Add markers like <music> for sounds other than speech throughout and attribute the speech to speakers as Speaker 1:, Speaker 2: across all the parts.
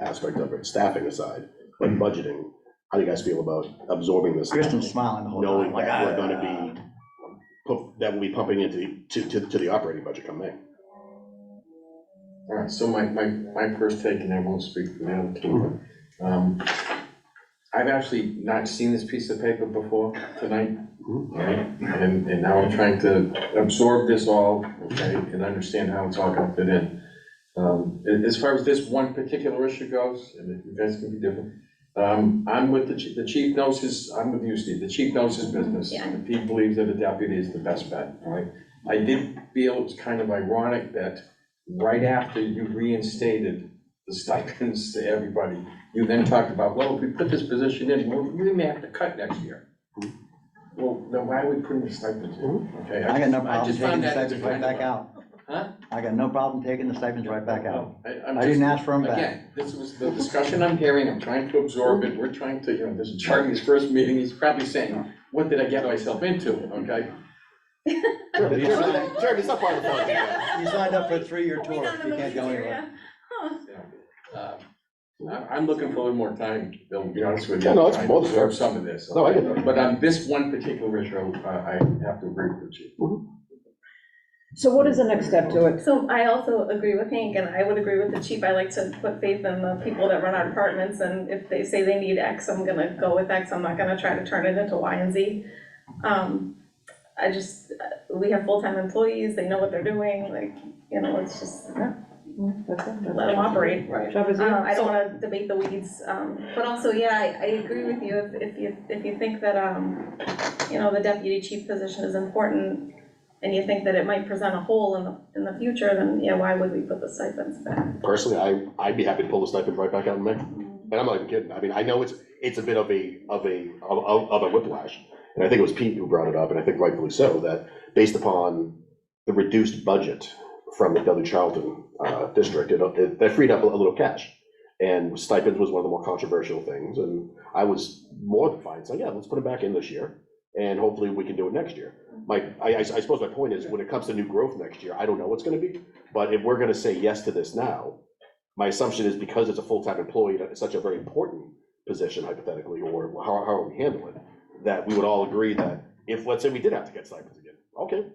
Speaker 1: aspect of it, staffing aside, like budgeting, how do you guys feel about absorbing this?
Speaker 2: Kristen's smiling the whole time.
Speaker 1: Knowing
Speaker 2: like,
Speaker 1: that we're
Speaker 2: "Ah."
Speaker 1: gonna be, pump- that we'll be pumping into, the- to, to, to the operating budget come May.
Speaker 3: All right, so my, my, my first take, and I won't speak for the other two, but, um, I've actually not seen this piece of paper before tonight,
Speaker 1: <laughs>
Speaker 3: right? And, and now I'm trying to absorb this all, okay, and understand how it's all gonna fit in. Um, a- as far as this one particular issue goes, and if you guys can be different, um, I'm with the chief, the chief knows his, I'm with you, Steve, the chief knows his business.
Speaker 4: Yeah.
Speaker 3: And he believes that a deputy is the best bet, all right? I did feel it's kind of ironic that right after you reinstated the stipends to everybody, you then talked about, well, if we put this position in, well, we may have to cut next year. Well, then why are we putting the stipends in? Okay,
Speaker 2: I got no problem
Speaker 3: just found
Speaker 2: taking the
Speaker 3: that to
Speaker 2: stipends
Speaker 3: be
Speaker 2: right
Speaker 3: kind of
Speaker 2: back out.
Speaker 3: a- Huh?
Speaker 2: I got no problem taking the stipends right back out.
Speaker 3: No, I- I'm
Speaker 2: I didn't
Speaker 3: just-
Speaker 2: ask for them back.
Speaker 3: Again, this was the discussion I'm hearing, I'm trying to absorb it, we're trying to, you know, this is Charlie's first meeting, he's probably saying, what did I get myself into, okay?
Speaker 1: Jeremy, Jeremy, Jeremy, stop part of the phone.
Speaker 2: You signed up for a three-year
Speaker 4: Wait,
Speaker 2: tour.
Speaker 4: no, no,
Speaker 2: You
Speaker 4: no,
Speaker 2: can't go
Speaker 4: it's here,
Speaker 2: anywhere.
Speaker 4: yeah. Huh.
Speaker 3: Uh, I- I'm looking for a little more time, Bill, to be honest with you.
Speaker 1: Yeah, no, it's
Speaker 3: Trying
Speaker 1: both
Speaker 3: to Absorb some of this.
Speaker 1: No, I get that.
Speaker 3: But on this one particular issue, uh, I have to agree with you.
Speaker 1: Mm-hmm.
Speaker 5: So what is the next step to it?
Speaker 4: So I also agree with Hank, and I would agree with the chief, I like to put faith in the people that run our departments, and if they say they need X, I'm gonna go with X, I'm not gonna try to turn it into Y and Z. Um, I just, uh, we have full-time employees, they know what they're doing, like, you know, it's just,
Speaker 5: That's it,
Speaker 4: let
Speaker 5: that's
Speaker 4: them operate.
Speaker 5: it. Job is
Speaker 4: Um, I
Speaker 5: done.
Speaker 4: don't wanna debate the weeds, um, but also, yeah, I, I agree with you, if, if you, if you think that, um, you know, the deputy chief position is important, and you think that it might present a hole in the, in the future, then, yeah, why would we put the stipends back?
Speaker 1: Personally, I, I'd be happy to pull the stipend right back out in May, and I'm not even kidding, I mean, I know it's, it's a bit of a, of a, of, of- of a whiplash. And I think it was Pete who brought it up, and I think rightfully so, that based upon the reduced budget from the Dudley Charlton, uh, district, it, it, that freed up a little cash. And stipends was one of the more controversial things, and I was more than fine, so yeah, let's put it back in this year, and hopefully we can do it next year. My, I, I I suppose my point is, when it comes to new growth next year, I don't know what's gonna be, but if we're gonna say yes to this now, my assumption is because it's a full-time employee, it's such a very important position hypothetically, or how, how are we handling it? That we would all agree that if, let's say we did have to get stipends again, okay,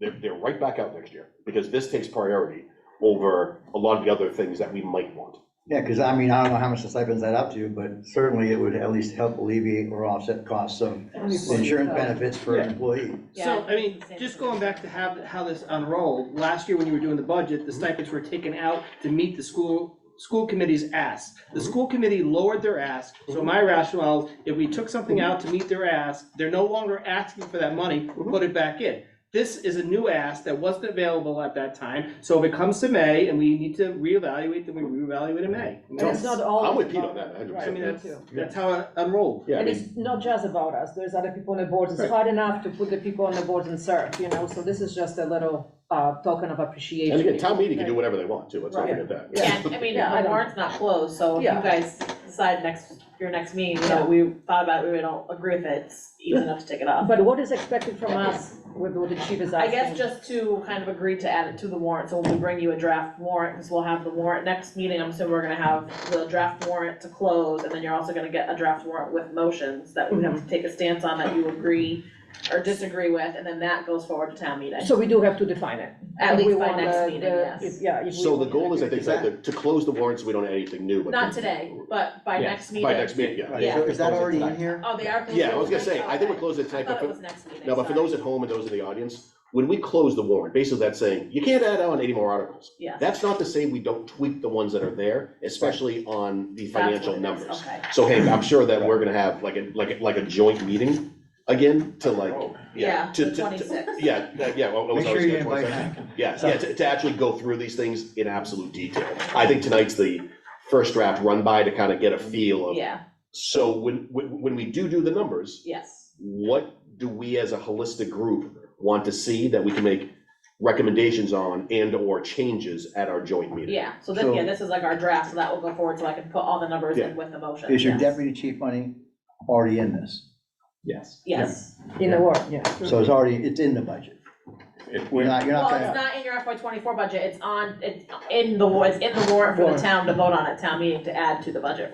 Speaker 1: they're, they're right back out next year, because this takes priority over a lot of the other things that we might want.
Speaker 2: Yeah, because I mean, I don't know how much the stipends add up to, but certainly it would at least help alleviate or offset costs of insurance benefits for an employee.
Speaker 6: So, I mean, just going back to how, how this unrolled, last year when you were doing the budget,
Speaker 5: Mhm.
Speaker 6: the stipends were taken out to meet the school, school committee's ask. The school committee lowered their ask,
Speaker 5: Mhm.
Speaker 6: so my rationale, is if we took something out to meet their ask, they're no longer asking for that money,
Speaker 5: Mhm.
Speaker 6: put it back in. This is a new ask that wasn't available at that time, so if it comes to May and we need to reevaluate, then we reevaluate in May. I mean,
Speaker 5: And it's not all.
Speaker 1: I'm with Pete
Speaker 5: about-
Speaker 1: on that, 100%.
Speaker 5: Right,
Speaker 6: I mean,
Speaker 5: me
Speaker 6: that's,
Speaker 5: too.
Speaker 6: that's how it unrolled.
Speaker 1: Yeah, I
Speaker 5: And
Speaker 1: mean,
Speaker 5: it's not just about us, there's other people on the boards, it's
Speaker 6: Right.
Speaker 5: hard enough to put the people on the boards and serve, you know, so this is just a little, uh, token of appreciation.
Speaker 1: and again, town meeting can do whatever they want too, let's not
Speaker 5: Right.
Speaker 1: forget that.
Speaker 7: Yeah, I mean,
Speaker 5: Yeah, I
Speaker 7: the
Speaker 5: don't-
Speaker 7: warrant's not closed, so if you
Speaker 5: Yeah.
Speaker 7: guys decide next, your next meeting, you know, we thought about, it, we don't agree with it, it's easy enough to take it off.
Speaker 5: But what is expected from us with what the chief is asking?
Speaker 7: <laughs> I guess just to kind of agree to add it to the warrant, so we'll bring you a draft warrant, because we'll have the warrant, next meeting, I'm assuming we're gonna have the draft warrant to close, and then you're also gonna get a draft warrant with motions that we have to take a stance on that you agree or disagree with, and then that goes forward to town meeting,
Speaker 5: So we do have to define it.
Speaker 7: at
Speaker 5: If we
Speaker 7: least by
Speaker 5: want the-
Speaker 7: next meeting,
Speaker 5: the-
Speaker 7: yes.
Speaker 5: if- Yeah. if we
Speaker 1: So the
Speaker 5: want
Speaker 1: goal is, I think,
Speaker 2: Exactly.
Speaker 1: like, to close the warrants, we don't add anything new, but.
Speaker 7: Not today, but by
Speaker 1: Yeah,
Speaker 7: next meeting.
Speaker 1: By next meeting, yeah.
Speaker 2: Right,
Speaker 7: Yeah.
Speaker 2: so Is that already in here?
Speaker 7: Oh, they are. closing
Speaker 1: Yeah, I was gonna
Speaker 7: it?
Speaker 1: say, I think we're
Speaker 7: Okay.
Speaker 1: closing
Speaker 7: I
Speaker 1: tonight, but
Speaker 7: thought
Speaker 1: for,
Speaker 7: it was next meeting.
Speaker 1: No, but for
Speaker 7: sorry.
Speaker 1: those at home and those in the audience, when we close the warrant, basically that's saying, you can't add on any more articles.
Speaker 7: Yeah.
Speaker 1: That's not to say we don't tweak the ones that are there, especially on the
Speaker 7: That's what
Speaker 1: financial
Speaker 7: it is,
Speaker 1: numbers.
Speaker 7: Okay.
Speaker 1: So Hank, I'm sure that we're gonna have like a, like, a- like a joint meeting again to like,
Speaker 3: Oh.
Speaker 1: yeah,
Speaker 7: Yeah,
Speaker 1: to,
Speaker 7: the
Speaker 1: to, to,
Speaker 7: twenty-sixth.
Speaker 1: yeah, that- yeah. well, it was
Speaker 2: Make sure
Speaker 1: always
Speaker 2: you
Speaker 1: good,
Speaker 2: invite
Speaker 1: wasn't it?
Speaker 2: Hank.
Speaker 1: Yeah, yeah, to, to actually go through these things in absolute detail. I think tonight's the first draft run by to kind of get a feel of,
Speaker 7: Yeah,
Speaker 1: so when, when, when we do do the numbers,
Speaker 7: yes,
Speaker 1: what do we as a holistic group want to see that we can make recommendations on and or changes at our joint meeting?
Speaker 7: yeah, so then, yeah, this is like our draft, so that will go forward, so I can put all the numbers in with the motion.
Speaker 2: Is your
Speaker 7: yes.
Speaker 2: deputy chief money already in this?
Speaker 7: Yes,
Speaker 5: In the war, yeah.
Speaker 2: So it's already, it's in the budget.
Speaker 8: If
Speaker 2: You're
Speaker 8: we,
Speaker 2: not, you're not
Speaker 7: Well, it's
Speaker 2: gonna,
Speaker 7: not in your FY twenty-four budget, it's on, it's in the, wa- it's in the warrant for the town to vote on at town meeting to add to the budget